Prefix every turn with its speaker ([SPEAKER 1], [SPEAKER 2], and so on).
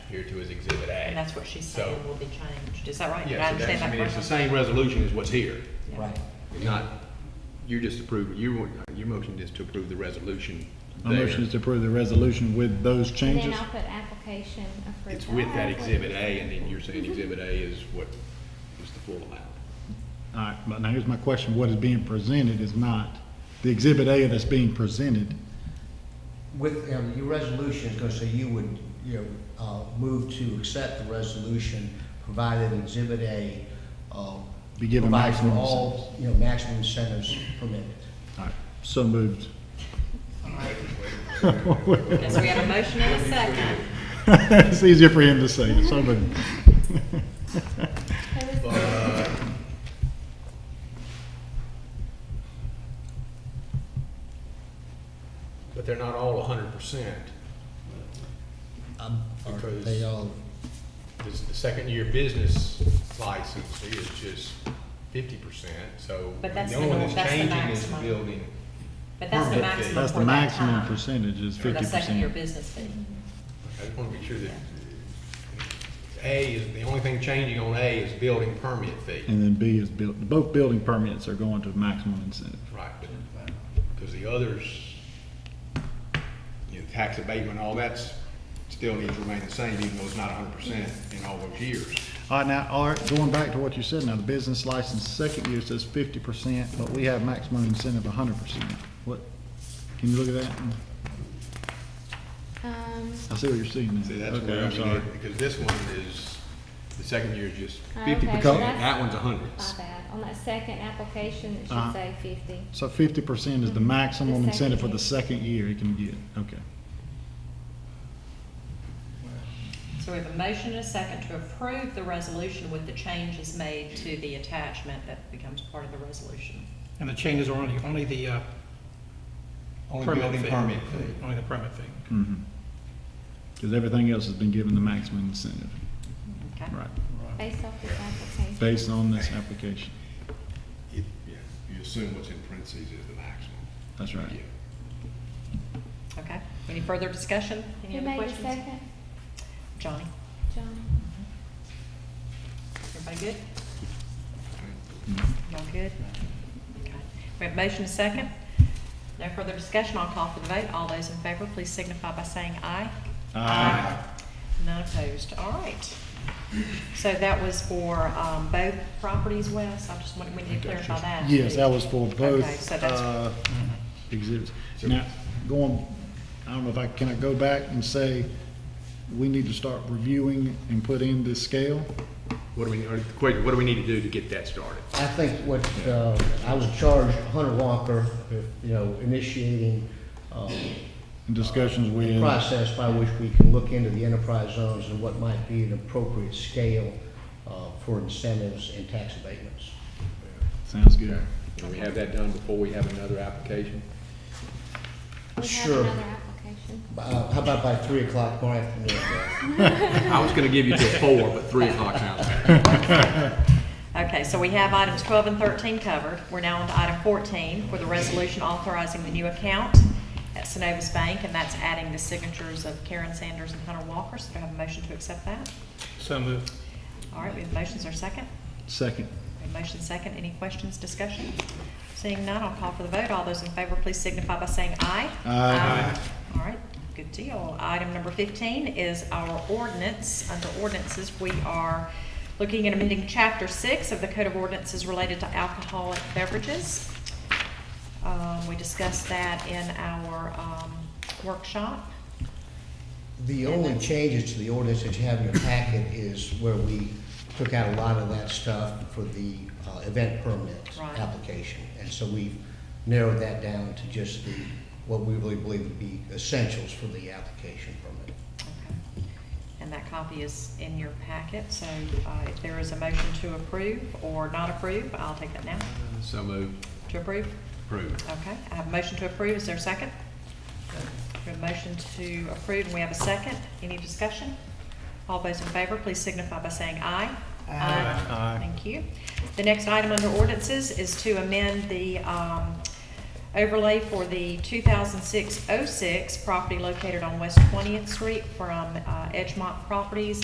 [SPEAKER 1] here to as Exhibit A.
[SPEAKER 2] And that's what she's
[SPEAKER 1] So-
[SPEAKER 2] saying will be changed, is that right? Did I
[SPEAKER 1] Yeah, so
[SPEAKER 2] understand
[SPEAKER 1] that's, I
[SPEAKER 2] that
[SPEAKER 1] mean, it's the
[SPEAKER 2] correctly?
[SPEAKER 1] same resolution as what's here.
[SPEAKER 2] Yeah.
[SPEAKER 3] Right.
[SPEAKER 1] It's not, you're just approving, you, your motion is to approve the resolution
[SPEAKER 4] My motion
[SPEAKER 1] there.
[SPEAKER 4] is to approve the resolution with those
[SPEAKER 5] And then
[SPEAKER 4] changes.
[SPEAKER 5] I'll put application approved.
[SPEAKER 1] It's with that
[SPEAKER 5] Alright.
[SPEAKER 1] Exhibit eh? A, and then you're saying Exhibit A is what is the full amount.
[SPEAKER 4] All right, but now here's my question, what is being presented is not, the Exhibit A that's being presented,
[SPEAKER 3] With, um, your resolution is gonna say you would, you know, uh, move to accept the resolution provided in Exhibit A, um.
[SPEAKER 4] Be given
[SPEAKER 3] provides for
[SPEAKER 4] maximum
[SPEAKER 3] all, You know, maximum incentives permitted.
[SPEAKER 4] all right, so moved.
[SPEAKER 2] Yes, we have a motion and a second.
[SPEAKER 4] It's easier for him to say, so moved.
[SPEAKER 5] Who is-
[SPEAKER 1] But they're not all hundred percent,
[SPEAKER 3] Um, are
[SPEAKER 1] Because-
[SPEAKER 3] They all,
[SPEAKER 1] this, the second year business license is just fifty percent, so.
[SPEAKER 2] But that's
[SPEAKER 1] the only
[SPEAKER 2] the
[SPEAKER 1] one
[SPEAKER 2] nor-
[SPEAKER 1] that's
[SPEAKER 2] that's the
[SPEAKER 1] changing is the
[SPEAKER 2] maximum.
[SPEAKER 1] building.
[SPEAKER 2] But that's the
[SPEAKER 1] Permit fee.
[SPEAKER 2] maximum
[SPEAKER 4] That's the
[SPEAKER 2] for that
[SPEAKER 4] maximum
[SPEAKER 2] time.
[SPEAKER 4] percentage is
[SPEAKER 2] For
[SPEAKER 4] fifty
[SPEAKER 2] the
[SPEAKER 4] percent.
[SPEAKER 2] second-year business fee.
[SPEAKER 1] I just want to make sure that A is, the only thing changing on A is building permit fee.
[SPEAKER 4] And then B is built, both building permits are going to maximum incentive.
[SPEAKER 1] Right, because the others, you know, tax abatement, all that's still needs to remain the same, even though it's not hundred percent in all those years.
[SPEAKER 4] All right, now, Art, going back to what you said, now, the business license, second year says fifty percent, but we have maximum incentive hundred percent. What, can you look at that?
[SPEAKER 5] Um,
[SPEAKER 4] I see what you're seeing now.
[SPEAKER 1] See, that's
[SPEAKER 4] Okay,
[SPEAKER 1] where, I
[SPEAKER 4] I'm sorry.
[SPEAKER 1] mean, because this one is, the second year is just
[SPEAKER 5] Okay,
[SPEAKER 1] fifty percent,
[SPEAKER 5] so Uh, that's-
[SPEAKER 1] that one's a hundred.
[SPEAKER 5] my bad. On that second application, it should
[SPEAKER 4] Uh-huh.
[SPEAKER 5] say fifty.
[SPEAKER 4] So fifty percent is the maximum
[SPEAKER 5] The
[SPEAKER 4] incentive for
[SPEAKER 5] second
[SPEAKER 4] the second year he can get, okay.
[SPEAKER 2] So we have a motion and a second to approve the resolution with the changes made to the attachment that becomes part of the resolution.
[SPEAKER 6] And the changes are only, only the uh,
[SPEAKER 1] Only
[SPEAKER 6] permit
[SPEAKER 1] building
[SPEAKER 6] fee.
[SPEAKER 1] permit fee.
[SPEAKER 6] Only the permit fee.
[SPEAKER 4] Because everything else has been given the maximum incentive,
[SPEAKER 2] Okay?
[SPEAKER 4] right,
[SPEAKER 5] Based off this application.
[SPEAKER 4] based on this application.
[SPEAKER 1] It- yeah, You assume what's in parentheses is the maximum.
[SPEAKER 4] That's right.
[SPEAKER 1] Yeah.
[SPEAKER 2] Okay. Any further discussion? Any
[SPEAKER 5] Who
[SPEAKER 2] other
[SPEAKER 5] made the
[SPEAKER 2] questions?
[SPEAKER 5] second?
[SPEAKER 2] Johnny,
[SPEAKER 5] John.
[SPEAKER 2] everybody good?
[SPEAKER 4] Mhm.
[SPEAKER 2] Y'all good? Okay. We have a motion and a second. No further discussion. I'll call for the vote. All those in favor, please signify by saying aye.
[SPEAKER 4] Aye.
[SPEAKER 2] None opposed. All right. So that was for um, both properties, Wes? I just wanted, we need to clarify that.
[SPEAKER 4] Yes, that was for
[SPEAKER 2] Okay,
[SPEAKER 4] both,
[SPEAKER 2] so that's-
[SPEAKER 4] uh, exhibits. Now, going, I don't know if I, can I go back and say, we need to start reviewing and put in this scale?
[SPEAKER 1] What do we, or the question, what do we need to do to get that started?
[SPEAKER 3] I think what, uh, I was charged, Hunter Walker, you know, initiating, um,
[SPEAKER 4] And discussions with,
[SPEAKER 3] process by which we can look into the enterprise zones and what might be an appropriate scale uh, for incentives and tax abatements.
[SPEAKER 4] sounds good.
[SPEAKER 1] Can we have that done before we have another application?
[SPEAKER 5] We have
[SPEAKER 3] Sure.
[SPEAKER 5] another application.
[SPEAKER 3] Uh, How about by 3 o'clock tomorrow afternoon?
[SPEAKER 1] I was gonna give you till four, but three o'clock sounds better.
[SPEAKER 2] Okay, so we have items 12 and 13 covered. We're now on to item 14 for the resolution authorizing the new account at Synovus Bank, and that's adding the signatures of Karen Sanders and Hunter Walker. So do I have a motion to accept that?
[SPEAKER 6] So moved.
[SPEAKER 2] All right, we have motions or second?
[SPEAKER 4] Second.
[SPEAKER 2] We have motion second. Any questions, discussion? Seeing none, I'll call for the vote. All those in favor, please signify by saying aye.
[SPEAKER 4] Aye.
[SPEAKER 2] All right, good deal. Item number 15 is our ordinance. Under ordinances, we are looking at amending Chapter 6 of the Code of Ordinances related to alcoholic beverages. Um, We discussed that in our um, workshop.
[SPEAKER 3] The only changes to the ordinance that you have in your packet is where we took out a lot of that stuff for the uh, event permit
[SPEAKER 2] Right.
[SPEAKER 3] application. And so we've narrowed that down to just the, what we really believe would be essentials for the application permit.
[SPEAKER 2] Okay. And that copy is in your packet, so uh, if there is a motion to approve or not approve, I'll take that now.
[SPEAKER 1] So moved,
[SPEAKER 2] To approve?
[SPEAKER 1] approved.
[SPEAKER 2] Okay, I have a motion to approve. Is there a second? We have a motion to approve, and we have a second. Any discussion? All those in favor, please signify by saying aye. Aye. Thank you. The next item under ordinances is to amend the um, overlay for the 2006-06 property located on West 20th Street from uh, Edgemont Properties